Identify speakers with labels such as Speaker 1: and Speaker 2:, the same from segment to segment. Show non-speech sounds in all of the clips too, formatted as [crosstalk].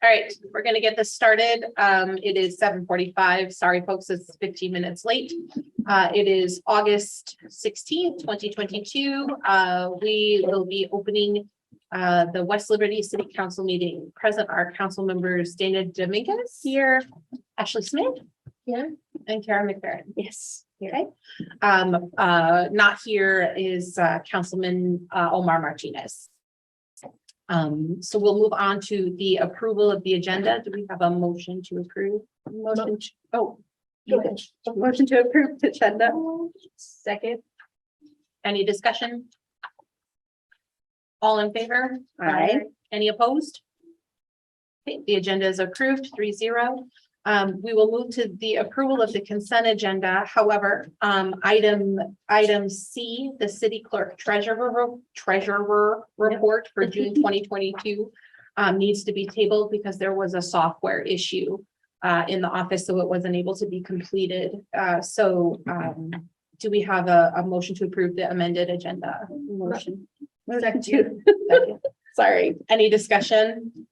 Speaker 1: All right, we're gonna get this started. Um, it is seven forty-five. Sorry, folks, it's fifteen minutes late. Uh, it is August sixteenth, twenty twenty-two. Uh, we will be opening uh, the West Liberty City Council meeting. Present are council members Dana Dominguez. Here. Ashley Smith. Here. And Karen McFerrin.
Speaker 2: Yes.
Speaker 1: Okay, um, uh, not here is, uh, Councilman, uh, Omar Martinez. Um, so we'll move on to the approval of the agenda. Do we have a motion to approve? Motion, to- oh.
Speaker 2: Go ahead.
Speaker 1: Motion to approve the agenda. Second. Any discussion? All in favor?
Speaker 2: Aye.
Speaker 1: Any opposed? Okay, the agenda is approved, three zero. Um, we will move to the approval of the consent agenda. However, um, item, item C, the city clerk treasurer, treasurer report for June twenty twenty-two um, needs to be tabled because there was a software issue uh, in the office, so it wasn't able to be completed. Uh, so, um, do we have a, a motion to approve the amended agenda?
Speaker 2: Motion.
Speaker 1: Second. [laughs] Sorry, any discussion?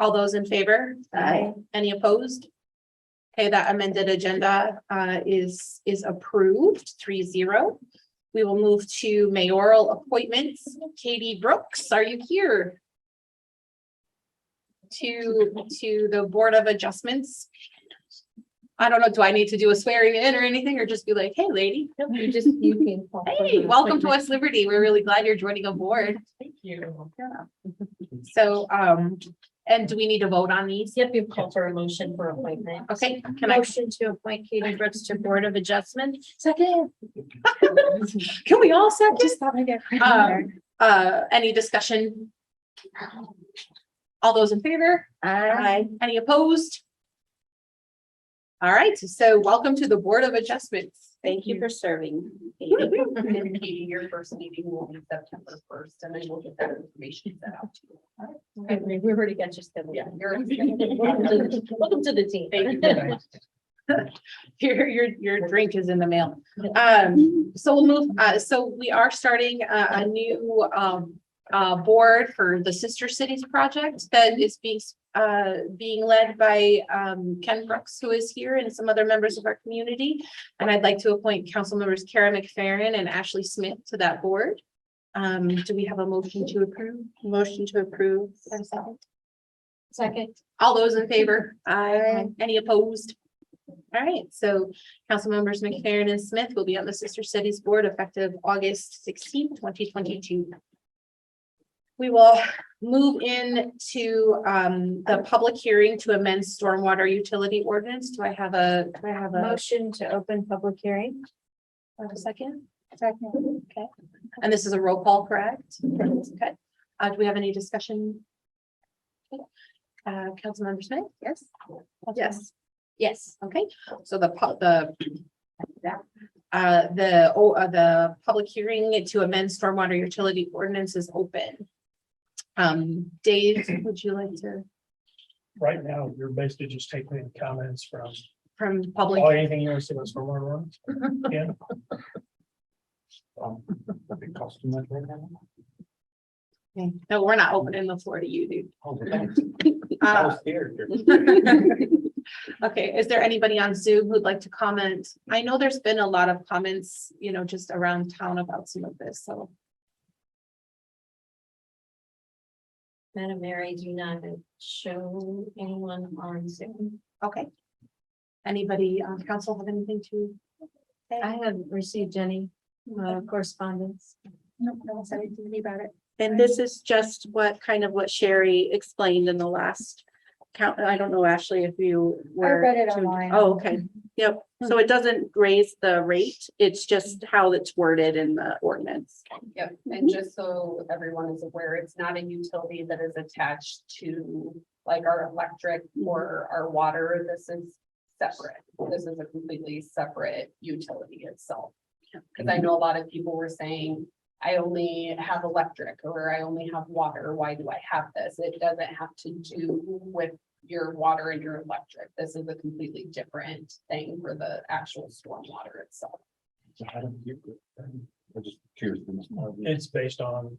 Speaker 1: All those in favor?
Speaker 2: Aye.
Speaker 1: Any opposed? Okay, that amended agenda uh, is, is approved, three zero. We will move to mayoral appointments. Katie Brooks, are you here? To, to the Board of Adjustments. I don't know, do I need to do a swearing in or anything, or just be like, hey, lady?
Speaker 2: You just, you can. call for
Speaker 1: Hey,
Speaker 2: the
Speaker 1: welcome to
Speaker 2: appointment.
Speaker 1: West Liberty. We're really glad you're joining aboard.
Speaker 2: Thank you.
Speaker 1: So, um, and do we need to vote on these?
Speaker 2: Yep, you've called for a motion for appointment.
Speaker 1: Okay, can I,
Speaker 2: Motion to appoint Katie Brooks to Board of Adjustment. Second.
Speaker 1: can we all second?
Speaker 2: Just thought I'd get.
Speaker 1: Um, Uh, any discussion? All those in favor?
Speaker 2: Aye.
Speaker 1: Any opposed? All right, so welcome to the Board of Adjustments.
Speaker 2: Thank you for serving.
Speaker 3: And then Katie, your first meeting will be September first, and then we'll get that information sent out to you.
Speaker 2: We already got you scheduled.
Speaker 3: Yeah.
Speaker 2: [laughs]
Speaker 3: [laughs]
Speaker 2: Welcome to the team.
Speaker 1: [laughs] Your, your, your drink is in the mail. Um, so we'll move, uh, so we are starting a, a new, um, uh, board for the Sister Cities Project that is being, uh, being led by, um, Ken Brooks, who is here and some other members of our community. And I'd like to appoint council members Kara McFerrin and Ashley Smith to that board. Um, do we have a motion to approve? Motion to approve.
Speaker 2: [laughs] Second.
Speaker 1: All those in favor? Aye. Any opposed? All right, so council members McFerrin and Smith will be on the Sister Cities Board effective August 16, twenty twenty-two. We will move in to um the public hearing to amend stormwater utility ordinance. Do I have a, do I have a
Speaker 2: Motion to open public hearing.
Speaker 1: a second?
Speaker 2: Second.
Speaker 1: Okay, and this is a roll call, correct? Okay, uh, do we have any discussion? Okay. Uh, Councilmember Smith? Yes. Yes.
Speaker 2: Yes.
Speaker 1: Okay, so the, pu- the. that, Uh, the, oh, uh, the public hearing to amend stormwater utility ordinance is open. Um, Dave, would you like to,
Speaker 4: right now, you're basically just taking comments from,
Speaker 1: from public?
Speaker 4: oh, anything you want to say was from one one? Yeah. Um, [laughs] that'd be costing that right now.
Speaker 1: No, we're not opening the floor to you, dude.
Speaker 4: Oh, thanks. I
Speaker 1: Uh,
Speaker 4: was scared.
Speaker 1: [laughs] Okay, is there anybody on Zoom who'd like to comment? I know there's been a lot of comments, you know, just around town about some of this, so.
Speaker 2: Madam Mayor, I do not show anyone on Zoom.
Speaker 1: Okay. Anybody on council have anything to? say?
Speaker 2: I haven't received any uh, correspondence.
Speaker 1: No, no one's said anything about it.
Speaker 5: And this is just what kind of what Sherry explained in the last count. I don't know, Ashley, if you were.
Speaker 2: it
Speaker 5: to- Oh, okay. Yep. So it doesn't raise the rate. It's just how it's worded in the ordinance.
Speaker 3: Yep, and just so everyone is aware, it's not a utility that is attached to like our electric or our water. This is separate. This is a completely separate utility itself. Because I know a lot of people were saying, I only have electric or I only have water. Why do I have this? It doesn't have to do with your water and your electric. This is a completely different thing for the actual stormwater itself.
Speaker 4: It's based on